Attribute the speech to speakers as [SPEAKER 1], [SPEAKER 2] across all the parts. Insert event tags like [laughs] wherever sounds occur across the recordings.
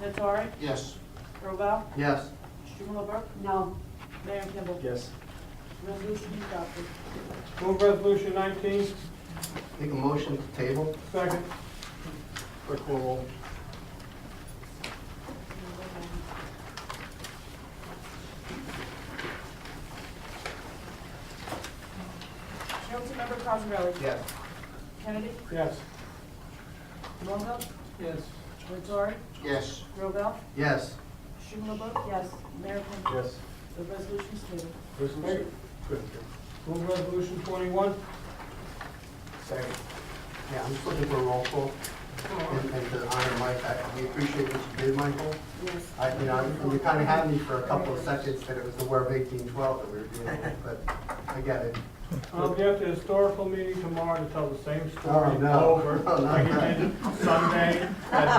[SPEAKER 1] Nattari?
[SPEAKER 2] Yes.
[SPEAKER 1] Robel?
[SPEAKER 2] Yes.
[SPEAKER 1] strumelberg
[SPEAKER 3] No.
[SPEAKER 1] Mayor Kimball?
[SPEAKER 4] Yes.
[SPEAKER 1] Resolution is adopted.
[SPEAKER 4] Move resolution nineteen,
[SPEAKER 2] Make a motion to table?
[SPEAKER 4] second. Clerk will roll.
[SPEAKER 1] Councilmember Cosarelli?
[SPEAKER 2] Yes.
[SPEAKER 1] Kennedy?
[SPEAKER 4] Yes.
[SPEAKER 1] Longo?
[SPEAKER 4] Yes.
[SPEAKER 1] Nattari?
[SPEAKER 2] Yes.
[SPEAKER 1] Robel?
[SPEAKER 2] Yes.
[SPEAKER 1] strumelberg
[SPEAKER 3] Yes.
[SPEAKER 1] Mayor Kimball?
[SPEAKER 4] Yes.
[SPEAKER 1] The resolution is tabled.
[SPEAKER 4] Resolution. Good. Move resolution twenty-one.
[SPEAKER 2] Second. Yeah, I'm just looking for a roll call. And and to honor Mike, I- we appreciate what you did, Michael.
[SPEAKER 1] Yes.
[SPEAKER 2] I, you know, you kind of had me for a couple of seconds that it was the War of 1812 that we were dealing with, but I get it.
[SPEAKER 4] I'll be at Um, the historical meeting tomorrow to tell the same
[SPEAKER 2] Oh,
[SPEAKER 4] story
[SPEAKER 2] no.
[SPEAKER 4] over,
[SPEAKER 2] [laughs] Oh, no.
[SPEAKER 4] like you did Sunday, and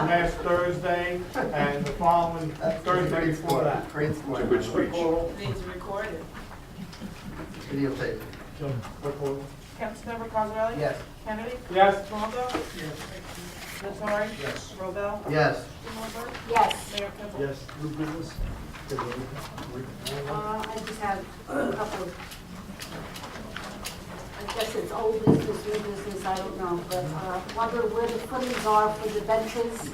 [SPEAKER 4] last Thursday, and the following
[SPEAKER 2] That's
[SPEAKER 4] Thursday
[SPEAKER 2] great
[SPEAKER 4] before
[SPEAKER 2] story.
[SPEAKER 4] that.
[SPEAKER 2] Great
[SPEAKER 5] It's
[SPEAKER 2] story.
[SPEAKER 5] a good speech.
[SPEAKER 1] Needs recorded.
[SPEAKER 2] Videotape.
[SPEAKER 4] Clerk will roll.
[SPEAKER 1] Councilmember Cosarelli?
[SPEAKER 2] Yes.
[SPEAKER 1] Kennedy?
[SPEAKER 4] Yes.
[SPEAKER 1] Longo? Nattari? Yes. Robel?
[SPEAKER 2] Yes.
[SPEAKER 1] strumelberg
[SPEAKER 3] Yes.
[SPEAKER 1] Mayor Kimball?
[SPEAKER 4] Yes. New business?
[SPEAKER 3] Uh, I just have a couple of, I guess it's old business, new business, I don't know, but uh, wonder where the footings are for the benches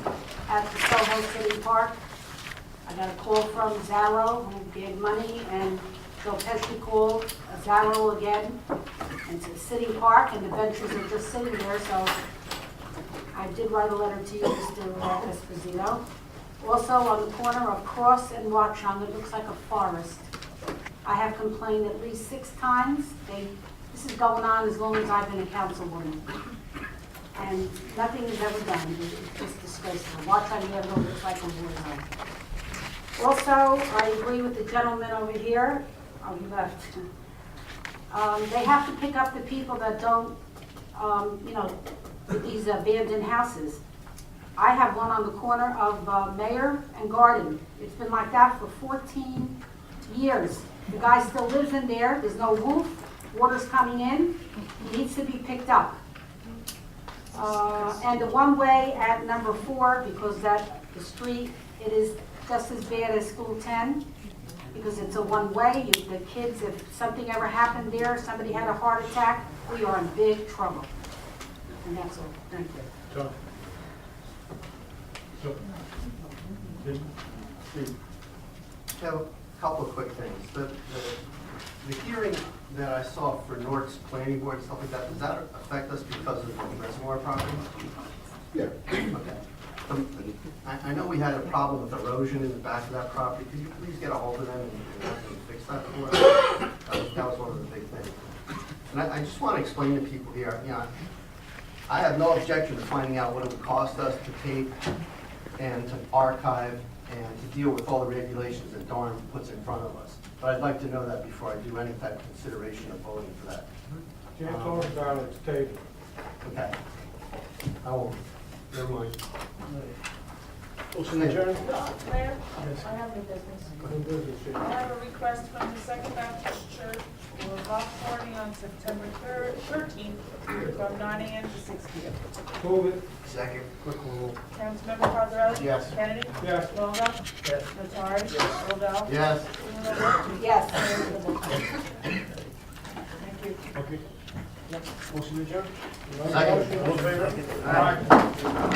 [SPEAKER 3] at the Soho City Park. I got a call from Zarro, who gave money, and Joe Pesci called Zarro again. It's a city park, and the benches are just sitting there, so I did write a letter to you, Mr. Esposito. Also, on the corner of Cross and Watchung, it looks like a forest. I have complained at least six times. They, this is going on as long as I've been a councilwoman. And nothing is ever done. It's just disgraceful. Watchung Avenue looks like a war zone. Also, I agree with the gentleman over here, oh, he left. Um, They have to pick up the people that don't, um, you know, these abandoned houses. I have one on the corner of uh, Mayor and Garden. It's been like that for 14 years. The guy still lives in there, there's no roof, water's coming in, he needs to be picked up. Uh, And the one-way at number four, because that, the street, it is just as bad as School 10, because it's a one-way, You- the kids, if something ever happened there, somebody had a heart attack, we are in big trouble. And that's all, thank you.
[SPEAKER 4] John. Joe. Jim. Steve.
[SPEAKER 2] Have a couple of quick things. The, the, the hearing that I saw for Nort's planning board and stuff like that, does that affect us because of the reservoir property?
[SPEAKER 5] Yeah.
[SPEAKER 2] Okay. Um, I, I know we had a problem with erosion in the back of that property. Could you please get a hold of them and- and have them fix that for us? That was- That was one of the big things. And I, I just want to explain to people here, you know, I have no objection to finding out what it would cost us to tape and to archive and to deal with all the regulations that Darn puts in front of us. But I'd like to know that before I do any type of consideration of voting for that.
[SPEAKER 4] Jan Torres, Alex Taylor.
[SPEAKER 2] Okay. I won't, never mind.
[SPEAKER 4] Motion adjourned.
[SPEAKER 1] Mayor,
[SPEAKER 4] Yes.
[SPEAKER 1] I have new business.
[SPEAKER 4] New business, Jim.
[SPEAKER 1] I have a request from the Second Baptist Church for a block party on September thir- 13th from 9 a.m. to 6 p.m.
[SPEAKER 4] Move it.
[SPEAKER 2] Second.
[SPEAKER 4] Clerk will roll.
[SPEAKER 1] Councilmember Cosarelli?
[SPEAKER 2] Yes.
[SPEAKER 1] Kennedy?
[SPEAKER 4] Yes.
[SPEAKER 1] Longo? Yes. Nattari? Yes. Robel?
[SPEAKER 2] Yes.
[SPEAKER 1] Strumelberg?
[SPEAKER 3] Yes.
[SPEAKER 1] Mayor Kimball? Thank you.
[SPEAKER 4] Okay. Motion adjourned.
[SPEAKER 2] Second.
[SPEAKER 4] All in favor?
[SPEAKER 2] Aye.